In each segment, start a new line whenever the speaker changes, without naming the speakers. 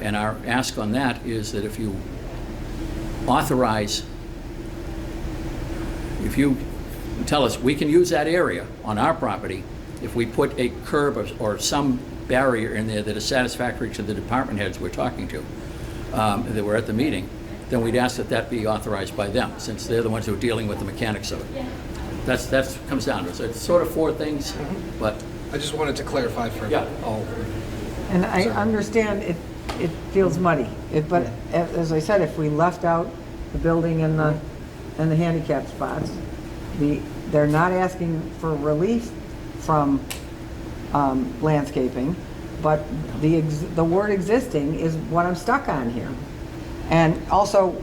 And our ask on that is that if you authorize, if you tell us, we can use that area on our property if we put a curb or- or some barrier in there that is satisfactory to the department heads we're talking to, um, that were at the meeting, then we'd ask that that be authorized by them, since they're the ones who are dealing with the mechanics of it. That's, that's, comes down to it. So it's sort of four things,
Mm-hmm.
but
I just wanted to clarify for
Yeah.
all.
And I understand it, it feels muddy, It- but a- as I said, if we left out the building and the, and the handicap spots, the, they're not asking for relief from um, landscaping, but the, ex- the word existing is what I'm stuck on here. And also,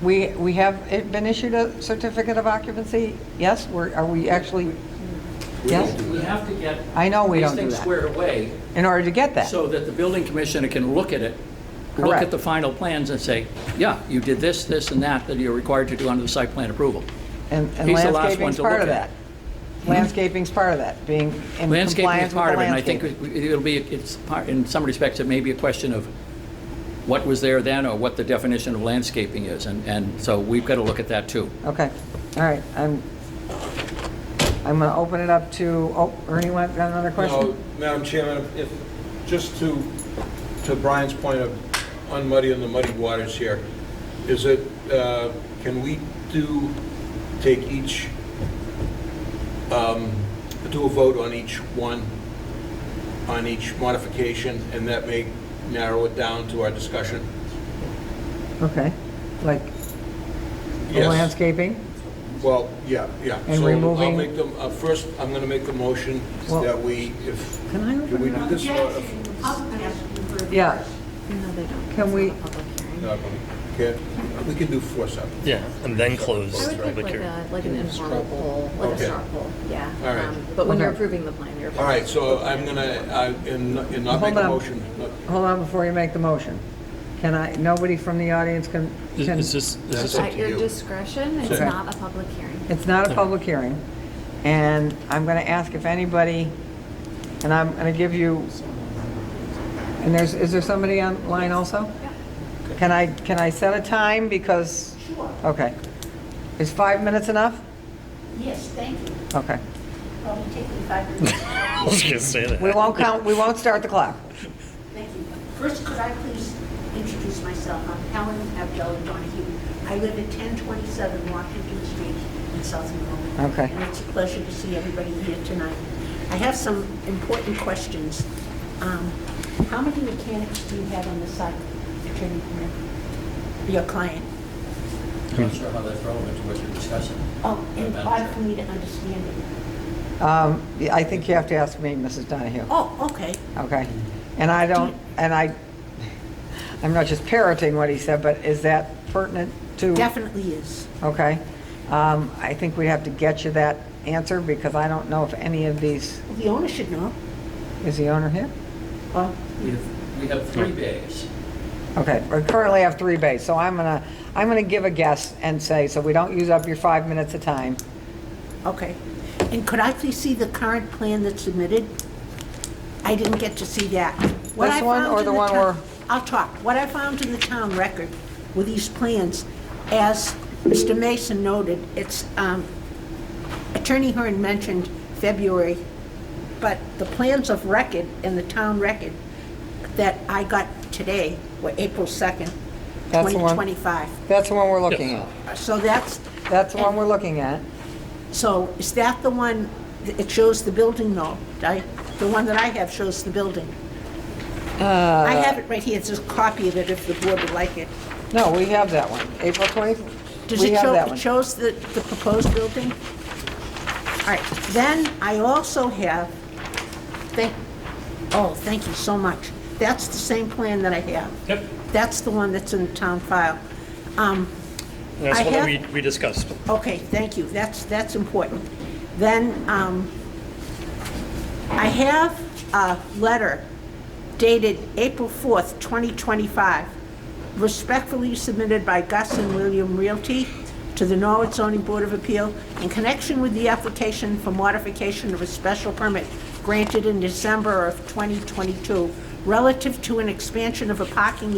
we, we have it been issued a certificate of occupancy, yes, we're, are we actually, yes,
We have to get.
I know we
these
don't do
things
that.
squared away
in order to get that?
so that the building commissioner can look at it, look at
Correct.
the final plans and say, yeah, you did this, this, and that that you're required to do under the site plan approval.
And and
He's the last one
landscaping's
to
part of
look at. Hmm?
that. Landscaping's part of that, being in compliance with the
Landscaping is part of it, and I think
landscape.
it- it'll be, it's, part- in some respects, it may be a question of what was there then or what the definition of landscaping is. And, and so we've got to look at that too.
Okay, all right, I'm, I'm going to open it up to, oh, Ernie, want got another
No,
question?
Madam Chairman, if, just to, to Brian's point of unmuddying the muddy waters here, is it, uh, can we do, take each, um, do a vote on each one, on each modification, and that may narrow it down to our discussion?
Okay, like the
Yes.
landscaping?
Well, yeah, yeah.
And
So I'll
removing-
make them, uh, first, I'm going to make the motion
Well-
that we, if,
Can I
can we
open it
do
up?
this? or-
Yeah,
No, they don't.
Can we-
It's not a public hearing.
No, Okay, we can do four separate.
Yeah, and then
I would
close the
think
public
like
hearing.
a, like an informal
straw
poll, like a
Okay.
straw poll, yeah.
All right.
Um, But when you're
Okay.
approving the plan, you're.
All right, so I'm gonna, I, and and not make
Hold on.
a motion. not-
hold on before you make the motion. Can I, nobody from the audience can,
Is
can-
is this, is
That's
this,
up
At
to
your
you.
discretion, it's
Okay.
not a public hearing.
it's not a public hearing, and I'm going to ask if anybody, and I'm going to give you, and there's, is there somebody online also? Can I, can I set a time because? Sure. Okay. Is five minutes enough?
Yes, thank you.
Okay.
Probably take me five minutes.
I was gonna say that.
We won't count, we won't start the clock.
Thank you. First, could I please introduce myself? I'm Helen Abdel Donahue. I live at 1027 Washington Street in South Monroe.
Okay.
And it's a pleasure to see everybody here tonight. I have some important questions. Um, How many mechanics do you have on the site, Attorney Quinn? Your client?
I'm not sure how that's relevant to what you're discussing.
Oh, and
Madam
hard
Chair.
for me to understand it.
Um, I think you have to ask me, Mrs. Donahue.
Oh, okay.
Okay. And I don't, and I, I'm not just parroting what he said, but is that pertinent to?
Definitely is.
Okay. Um, I think we have to get you that answer because I don't know if any of these,
The owner should know.
is the owner here?
Well,
We have- We have three bays.
Okay, we currently have three bays, so I'm gonna, I'm gonna give a guess and say, so we don't use up your five minutes of time.
Okay. And could I please see the current plan that's submitted? I didn't get to see that. What
This
I
one
found
or
in
the one
town-
where-
I'll talk. What I found in the town record were these plans. As Mr. Mason noted, it's, um, Attorney Hearn mentioned February, but the plans of record in the town record that I got today were April 2nd,
That's the one.
2025.
That's the one we're looking at.
So that's,
That's the one we're looking at.
so is that the one, it shows the building though? I- The one that I have shows the building.
Uh,
I have it right here, it's a copy of it if the board would like it.
No, we have that one, April 20th.
Does
We
it
have
show,
that
it
one.
shows the, the proposed building? All right, then I also have, thank, oh, thank you so much. That's the same plan that I have.
Yep.
That's the one that's in the town file. Um,
That's
I
what
have-
we, we discussed.
Okay, thank you, that's, that's important. Then, um, I have a letter dated April 4th, 2025, respectfully submitted by Gus and William Realty to the Norwood Zoning Board of Appeal in connection with the application for modification of a special permit granted in December of 2022 relative to an expansion of a parking